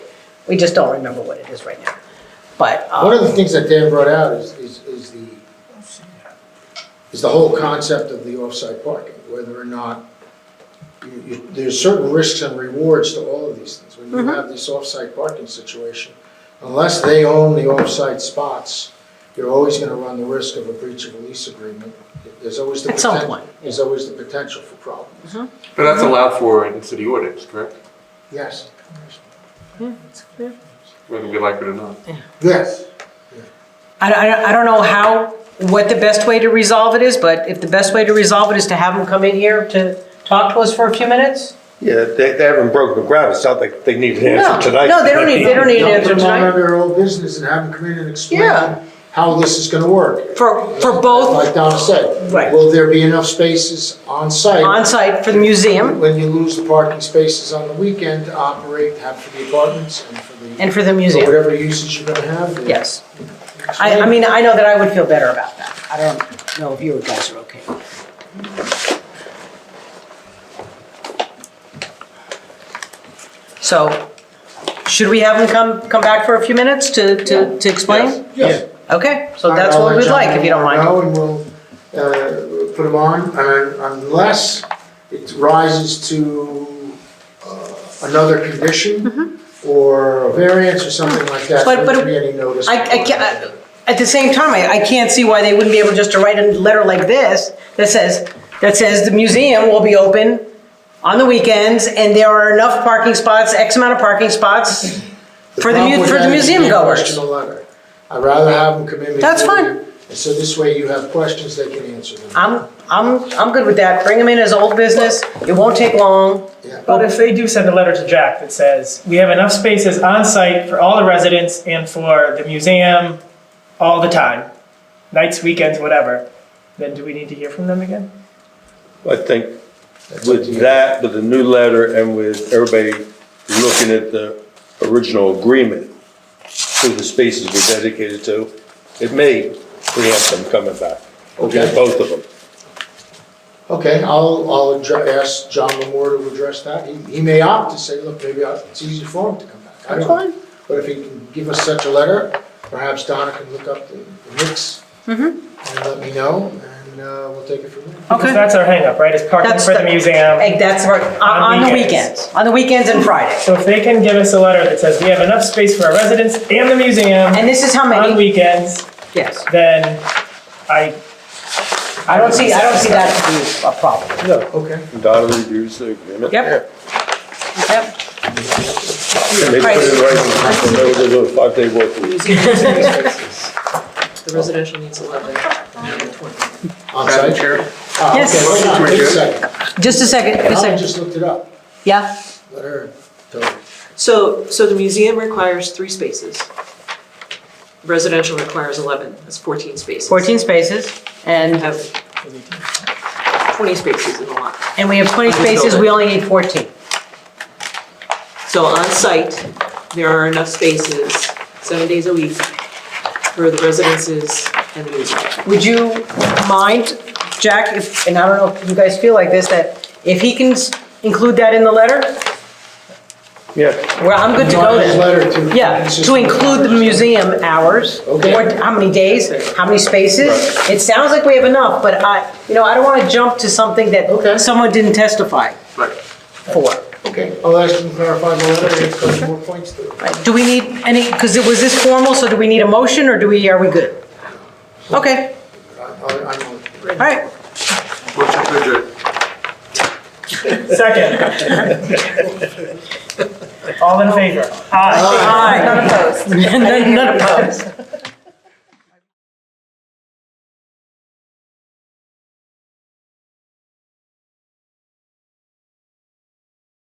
We just don't remember what it is right now. But, One of the um, things that Dan brought out is, is, is the, is the whole concept of the off-site parking, whether or not, you, you, there's certain risks and rewards to all of these things. When Mm-hmm. you have this off-site parking situation, unless they own the off-site spots, you're always gonna run the risk of a breach of a lease agreement. There's always the. At some poten- point. There's always the potential for problems. But that's allowed for in city ordinance, correct? Yes, Whether we like it or not. yes. I, I, I don't know how, what the best way to resolve it is, but if the best way to resolve it is to have them come in here to talk to us for a few minutes? Yeah, they, they haven't broken ground, it sounds like they need an No, answer tonight. no, they don't need- they don't need- an answer Put them on tonight? under old business and have them come in and Yeah. explain how this is gonna work. For, for both Like Donna said. Right. Will there be enough spaces on site? on-site for the museum When you lose the parking spaces on the weekend, to operate, have for the apartments and for the. and for the for museum, Whatever uses you're gonna have. there. yes. I, I mean, I know that I would feel better about that. I don't know if you guys are okay. So, should we have them come, come back for a few minutes to, to, to explain? Yes. Okay, so that's what we'd like, if you don't mind. No, and we'll, uh, put them on, and unless it rises to, uh, another condition or a variance or something like Mm-hmm. that, But- there but wouldn't be any notice. I, uh, I can't, at the same time, I, I can't see why they wouldn't be able just to write a letter like this that says, that says the museum will be open on the weekends and there are enough parking spots, X amount of parking spots for the, problem mu- with for that the is museum you can't goers. Question a letter. I'd rather have them come in. That's before fine. Uh, you- And so this way you have questions, they can answer them. I'm, I'm, I'm good with that. Bring them in as old business. It won't take long. Yeah. But if they do send a letter to Jack that says, we have enough spaces on site for all the residents and for the museum all the time, nights, weekends, whatever, then do we need to hear from them again? I think with that, with the new letter and with everybody looking at the original agreement, who the spaces were dedicated to, it may preempt them coming back. Okay. Both of them. Okay, I'll, I'll addre- ask John Lamore to address that. He, he may opt to say, look, maybe I- it's easier for him to come back. I That's don't know. fine. But if he can give us such a letter, perhaps Donna can look up the the mix Mm-hmm. and let me know, and uh, we'll take it from there. Because that's our hangup, right, is parking That's for the the- museum. Like, that's right, on, on the On weekends, weekends. on the weekends and Fridays. So if they can give us a letter that says, we have enough space for our residents and the museum And this is how on many, weekends, yes. then I, I don't see, I don't see that to be a problem. No, Okay. Donna reviews the agreement. Yep. Yep. And they put it in writing, they would do a five-day work week. The residential needs 11, and 20. On site? Ah, Yes. okay, wait on, wait a second. Just a second, just a Donna second. just looked it up. Yeah, Let her tell you. So, so the museum requires three spaces. Residential requires 11, that's 14 spaces. 14 spaces, We and, have 20 spaces in the lot. and we have 20 spaces, we only need 14. So on site, there are enough spaces, seven days a week, for the residences and the museum. Would you mind, Jack, if, and I don't know if you guys feel like this, that if he can s- include that in the letter, Yeah, well, I'm good to go His then. letter to. Yeah, to include the museum hours, Okay. or how many days, how many spaces. It sounds like we have enough, but I, you know, I don't want to jump to something Okay. that someone didn't testify Right. for. Okay, I'll ask him to clarify the letter, and a couple more points to it. Right, Do we need any, because it was this formal, so do we need a motion, or do we, are we good? Okay, I- I- I'm- all right. Motion to adjourn. second. All in favor? Aye. Aye. None opposed.